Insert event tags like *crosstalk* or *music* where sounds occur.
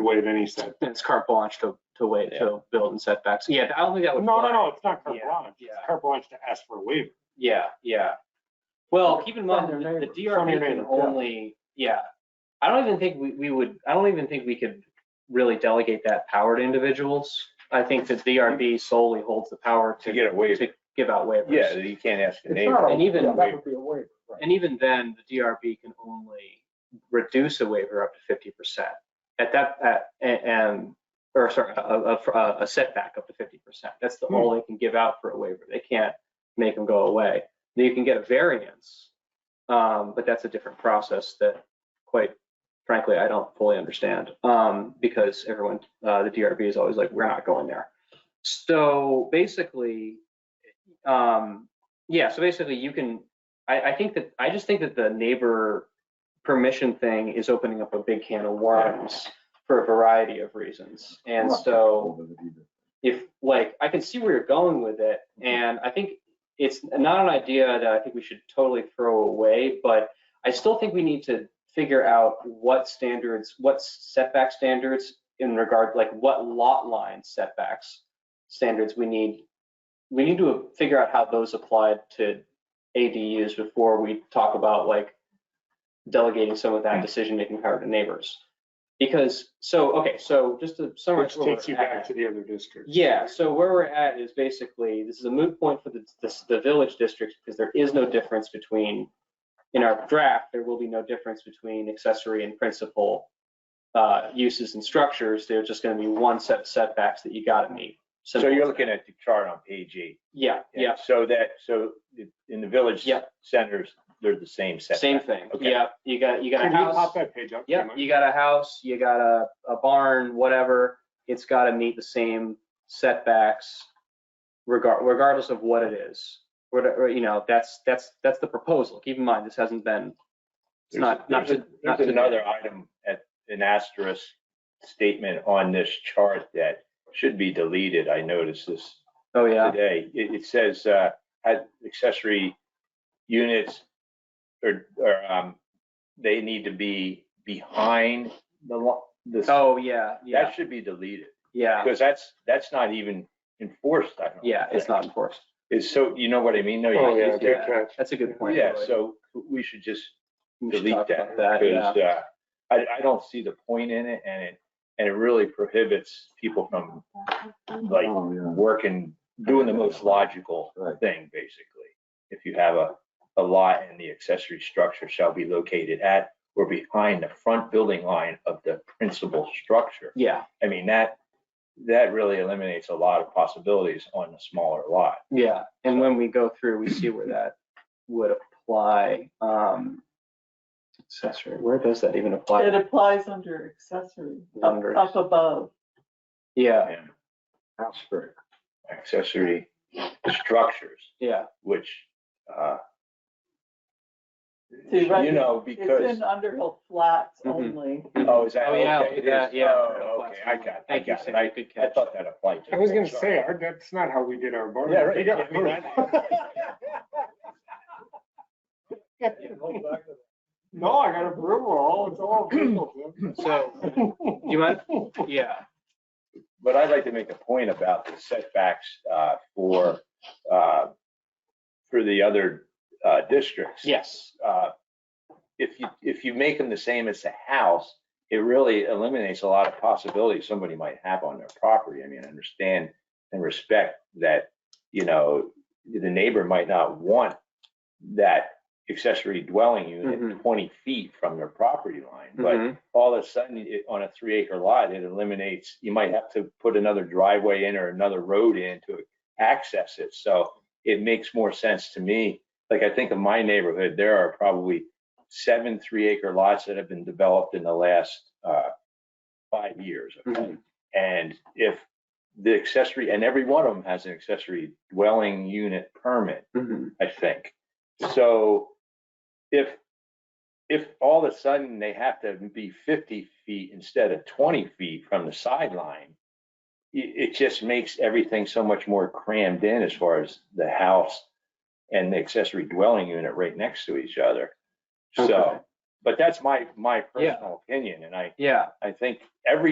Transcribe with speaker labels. Speaker 1: waive any set.
Speaker 2: And it's carte blanche to, to wait, to build and setbacks. Yeah, I don't think that
Speaker 1: No,
Speaker 2: would.
Speaker 1: no,
Speaker 2: fly.
Speaker 1: no, it's not carte
Speaker 2: Yeah,
Speaker 1: blanche. It's
Speaker 2: yeah.
Speaker 1: carte blanche to ask for a waiver.
Speaker 2: Yeah, yeah. Well, keep in mind,
Speaker 3: From your
Speaker 2: the
Speaker 3: neighbor.
Speaker 2: the
Speaker 1: From your
Speaker 2: DRB can
Speaker 1: neighbor, yeah.
Speaker 2: only, yeah. I don't even think we, we would, I don't even think we could really delegate that power to individuals. I think that DRB solely holds the power
Speaker 4: to
Speaker 2: to,
Speaker 4: get a waiver.
Speaker 2: to give out waivers.
Speaker 4: Yeah, you can't ask the
Speaker 3: It's
Speaker 4: neighbor.
Speaker 3: not a,
Speaker 2: And even-
Speaker 3: yeah, that would be a waiver, right?
Speaker 2: And even then, the DRB can only reduce a waiver up to fifty percent. At that, at, a- and, or sorry, a, a- a setback up to fifty percent. That's the all they can give out for a waiver. They can't make them go away. Then you can get a variance, um, but that's a different process that quite frankly, I don't fully understand. Um, because everyone, uh, the DRB is always like, we're not going there. So basically, um, yeah, so basically you can, I, I think that, I just think that the neighbor permission thing is opening up a big can of worms for a variety of reasons. And so if, like, I can see where you're going with it,
Speaker 1: Mm-hmm.
Speaker 2: and I think it's not an idea that I think we should totally throw away, but I still think we need to figure out what standards, what setback standards in regard, like what lot line setbacks standards we need. We need to figure out how those applied to ADUs before we talk about like delegating some of that
Speaker 1: Mm.
Speaker 2: decision-making power to neighbors. Because, so, okay, so just to summarize.
Speaker 1: Which
Speaker 2: where we're
Speaker 1: takes you
Speaker 2: at.
Speaker 1: back to the other districts.
Speaker 2: Yeah, so where we're at is basically, this is a moot point for the, the, the village districts because there is no difference between, in our draft, there will be no difference between accessory and principal uh, uses and structures. There's just gonna be one set of setbacks that you gotta meet.
Speaker 4: So
Speaker 2: Simple
Speaker 4: you're
Speaker 2: as
Speaker 4: looking
Speaker 2: that.
Speaker 4: at the chart on page eight.
Speaker 2: Yeah, yeah,
Speaker 4: So that, so in the village
Speaker 2: Yeah.
Speaker 4: centers, they're the same setback.
Speaker 2: same thing.
Speaker 4: Okay.
Speaker 2: Yeah, you got, you got
Speaker 1: Can
Speaker 2: a
Speaker 1: you pop
Speaker 2: house.
Speaker 1: that page up?
Speaker 2: Yeah,
Speaker 1: Mike?
Speaker 2: you got a house, you got a, a barn, whatever. It's gotta meet the same setbacks regard, regardless of what it is. What- or, you know, that's, that's, that's the proposal. Keep in mind, this hasn't been, it's
Speaker 4: There's-
Speaker 2: not, not
Speaker 4: there's
Speaker 2: to,
Speaker 4: a-
Speaker 2: not
Speaker 4: There's
Speaker 2: to.
Speaker 4: another item at an asterisk statement on this chart that should be deleted. I noticed this
Speaker 2: Oh,
Speaker 4: *laughs*
Speaker 2: yeah,
Speaker 4: today. It, it says, uh, had accessory units or, or, um, they need to be behind the lo- the.
Speaker 2: oh, yeah, yeah,
Speaker 4: That should be deleted
Speaker 2: yeah,
Speaker 4: because that's, that's not even enforced. I don't
Speaker 2: yeah, it's
Speaker 4: think.
Speaker 2: not enforced.
Speaker 4: It's so, you know what I mean? No,
Speaker 1: Oh,
Speaker 4: you-
Speaker 1: yeah,
Speaker 2: Yeah.
Speaker 1: good catch.
Speaker 2: That's a good point.
Speaker 4: Yeah,
Speaker 2: Lloyd.
Speaker 4: so we should just
Speaker 2: We should
Speaker 4: delete
Speaker 2: talk
Speaker 4: that
Speaker 2: about That, yeah.
Speaker 4: because uh, I, I don't see the point in it and it, and it really prohibits people from like
Speaker 3: Oh, yeah.
Speaker 4: working, doing the most logical
Speaker 3: Right.
Speaker 4: thing, basically. If you have a, a lot and the accessory structure shall be located at or behind the front building line of the principal structure.
Speaker 2: Yeah,
Speaker 4: I mean, that, that really eliminates a lot of possibilities on a smaller lot.
Speaker 2: yeah. And when we go through, we see where that would apply. um, Accessory, where does that even apply?
Speaker 5: It applies under accessory, up-
Speaker 2: Under-
Speaker 5: up above.
Speaker 2: Yeah,
Speaker 4: And
Speaker 3: House for it.
Speaker 4: accessory structures,
Speaker 2: yeah,
Speaker 4: which, uh,
Speaker 5: See, right,
Speaker 4: you know,
Speaker 5: It's
Speaker 4: because,
Speaker 5: in Underhill Flats
Speaker 2: Mhm.
Speaker 5: only.
Speaker 4: oh, is that,
Speaker 2: Oh, yeah,
Speaker 4: okay, it
Speaker 2: yeah,
Speaker 4: is.
Speaker 2: yeah.
Speaker 4: Oh, okay, I got, it, I
Speaker 2: Thank you,
Speaker 4: got it.
Speaker 2: Sam.
Speaker 4: I,
Speaker 2: Good
Speaker 4: I
Speaker 2: catch.
Speaker 4: thought that applied to.
Speaker 1: I was gonna say, our- that's not how we did our barn.
Speaker 4: Yeah, right.
Speaker 1: We got
Speaker 4: Yeah,
Speaker 1: *laughs* No, I got a brew wall. It's
Speaker 2: *clears throat*
Speaker 1: all legal, Jim.
Speaker 2: So, do you
Speaker 4: *laughs*
Speaker 2: mind? Yeah,
Speaker 4: *laughs* But I'd like to make a point about the setbacks, uh, for, uh, for the other, uh, districts.
Speaker 2: yes.
Speaker 4: uh, if you, if you make them the same as the house, it really eliminates a lot of possibilities somebody might have on their property. I mean, I understand and respect that, you know, the neighbor might not want that accessory dwelling unit
Speaker 2: Mhm.
Speaker 4: twenty feet from their property line, but
Speaker 2: Mhm.
Speaker 4: all of a sudden, it- on a three acre lot, it eliminates, you might have to put another driveway in or another road in to access it. So it makes more sense to me. Like I think of my neighborhood, there are probably seven three acre lots that have been developed in the last uh, five years.
Speaker 2: Mm-hmm.
Speaker 4: okay? And if the accessory, and every one of them has an accessory dwelling unit permit,
Speaker 2: Mhm.
Speaker 4: I think. So if, if all of a sudden they have to be 50 feet instead of 20 feet from the sideline, it, it just makes everything so much more crammed in as far as the house and the accessory dwelling unit right next to each other.
Speaker 2: Okay.
Speaker 4: So, but that's my, my
Speaker 2: Yeah.
Speaker 4: personal opinion. And I,
Speaker 2: Yeah.
Speaker 4: I think every